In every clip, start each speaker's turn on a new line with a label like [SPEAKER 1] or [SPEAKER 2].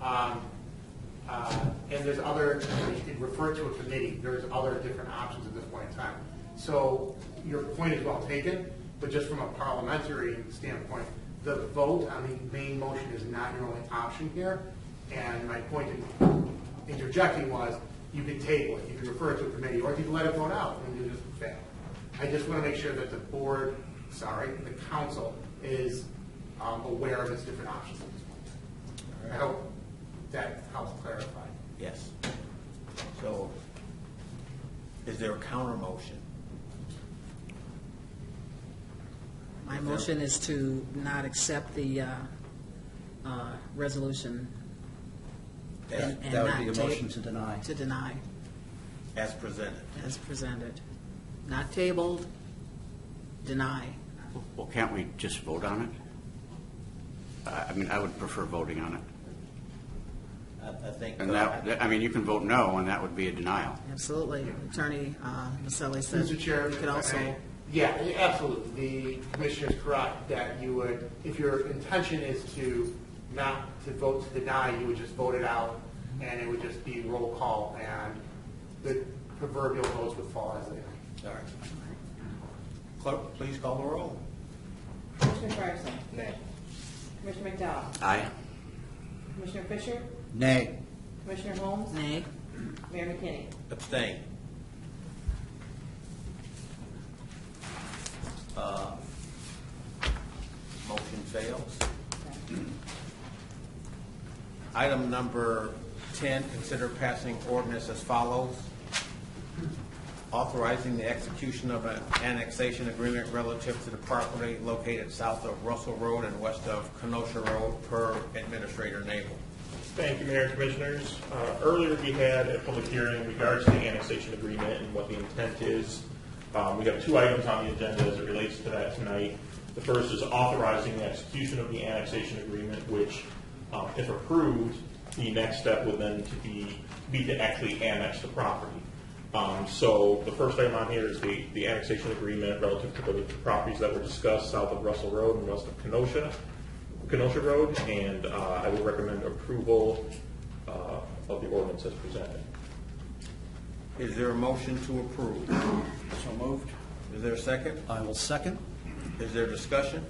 [SPEAKER 1] Um, uh, And there's other, you could refer to a committee, there's other different options at this point in time. So your point is well taken, but just from a parliamentary standpoint, the vote on the main motion is not your only option here. And my point in interjecting was, you can table it, you can refer it to a committee, or you can let it vote out, and you just fail. I just want to make sure that the board, sorry, the council is um, aware of its different options at this point. I hope that helps clarify.
[SPEAKER 2] Yes. So, is there a counter motion?
[SPEAKER 3] My motion is to not accept the uh, uh, resolution and
[SPEAKER 2] As,
[SPEAKER 3] and
[SPEAKER 4] That would
[SPEAKER 3] not
[SPEAKER 4] be a
[SPEAKER 3] ta-
[SPEAKER 4] motion to deny.
[SPEAKER 3] To deny
[SPEAKER 2] as presented?
[SPEAKER 3] as presented. Not tabled, deny.
[SPEAKER 5] Well, can't we just vote on it? I I mean, I would prefer voting on it.
[SPEAKER 2] I, I think.
[SPEAKER 5] And that, that- I mean, you can vote no, and that would be a denial.
[SPEAKER 3] Absolutely. Attorney uh, Maselli said.
[SPEAKER 1] Mr. Chair.
[SPEAKER 3] You could also,
[SPEAKER 1] Yeah, yeah, absolutely. The commissioner is correct that you would, if your intention is to not, to vote to deny, you would just vote it out, and it would just be roll call, and the proverbial votes would fall as they are.
[SPEAKER 2] All right. Clerk, please call the roll.
[SPEAKER 6] Commissioner Fryerson. Commissioner McDowell.
[SPEAKER 5] Aye.
[SPEAKER 6] Commissioner Fisher.
[SPEAKER 4] Nay.
[SPEAKER 6] Commissioner Holmes.
[SPEAKER 3] nay.
[SPEAKER 6] Mayor McKinney.
[SPEAKER 2] Abstain. Uh, Motion fails. Item number 10, consider passing ordinance as follows. Authorizing the execution of an annexation agreement relative to the property located south of Russell Road and west of Kenosha Road per Administrator Nabel.
[SPEAKER 7] Thank you, Mayor and Commissioners. Uh, Earlier, we had a public hearing in regards to the annexation agreement and what the intent is. Um, We have two items on the agenda as it relates to that tonight. The first is authorizing the execution of the annexation agreement, which, um, if approved, the next step would then to be, be to actually annex the property. Um, So the first item on here is the, the annexation agreement relative to the properties that were discussed south of Russell Road and west of Kenosha. Kenosha Road, and uh, I would recommend approval uh, of the ordinance as presented.
[SPEAKER 2] Is there a motion to approve?
[SPEAKER 4] So moved.
[SPEAKER 2] Is there a second?
[SPEAKER 4] I will second.
[SPEAKER 2] Is there discussion?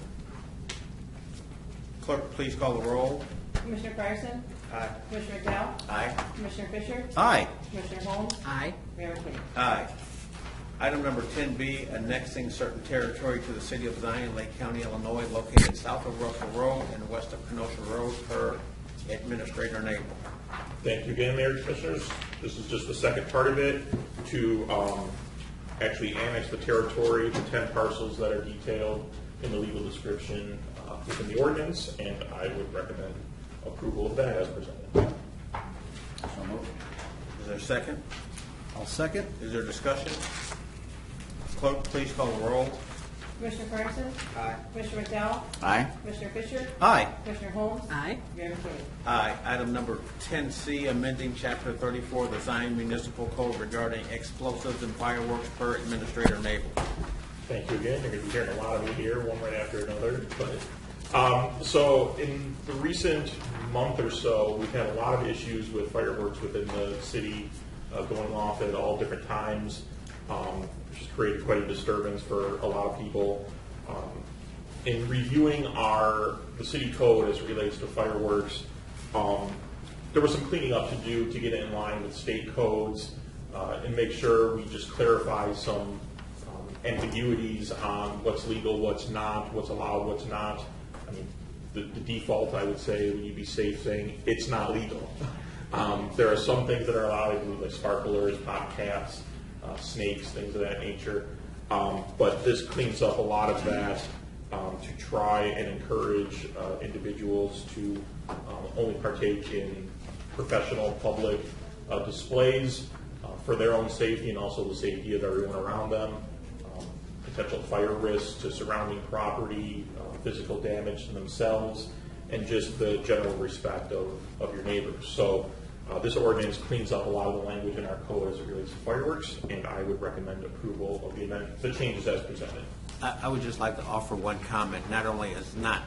[SPEAKER 2] Clerk, please call the roll.
[SPEAKER 6] Commissioner Fryerson.
[SPEAKER 2] Aye.
[SPEAKER 6] Commissioner McDowell.
[SPEAKER 2] Aye.
[SPEAKER 6] Commissioner Fisher.
[SPEAKER 4] Aye.
[SPEAKER 6] Commissioner Holmes.
[SPEAKER 3] Aye.
[SPEAKER 6] Mayor McKinney.
[SPEAKER 2] Aye. Item number ten B, annexing certain territory to the city of Zion, Lake County, Illinois, located south of Russell Road and west of Kenosha Road per Administrator Nabel.
[SPEAKER 7] Thank you again, Mayor and Commissioners. This is just the second part of it, to um, actually annex the territory, the 10 parcels that are detailed in the legal description uh, within the ordinance, and I would recommend approval of that as presented.
[SPEAKER 4] So moved.
[SPEAKER 2] Is there a second?
[SPEAKER 4] I'll second.
[SPEAKER 2] Is there discussion? Clerk, please call the roll.
[SPEAKER 6] Commissioner Fryerson. Aye. Commissioner McDowell.
[SPEAKER 5] Aye.
[SPEAKER 6] Commissioner Fisher.
[SPEAKER 4] Aye.
[SPEAKER 6] Commissioner Holmes.
[SPEAKER 3] Aye.
[SPEAKER 6] Mayor McKinney.
[SPEAKER 2] Aye. Item number ten C, amending chapter thirty-four of the Zion Municipal Code regarding explosives and fireworks per Administrator Nabel.
[SPEAKER 7] Thank you again. You're going to be hearing a lot of me here, one right after another. But um, so, in the recent month or so, we've had a lot of issues with fireworks within the city uh, going off at all different times, um, which has created quite a disturbance for a lot of people. Um, in reviewing our the city code as it relates to fireworks, um, there was some cleaning up to do to get it in line with state codes uh, and make sure we just clarify some um, ambiguities on what's legal, what's not, what's allowed, what's not. I mean, the, the default, I would say, would you be safe saying, it's not legal. Um, there are some things that are allowed, I believe, like sparklers, pop caps, uh, snakes, things of that nature. Um, but this cleans up a lot of that um, to try and encourage uh, individuals to um, only partake in professional, public uh, displays uh, for their own safety and also the safety of everyone around them. Um, potential fire risks to surrounding property, uh, physical damage to themselves, and just the general respect of, of your neighbors. So uh, this ordinance cleans up a lot of the language in our code as it relates to fireworks, and I would recommend approval of the amendment, the changes as presented.
[SPEAKER 2] I, I would just like to offer one comment. Not only is not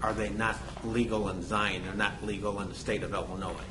[SPEAKER 2] are they not legal in Zion? They're not legal in the state of Illinois.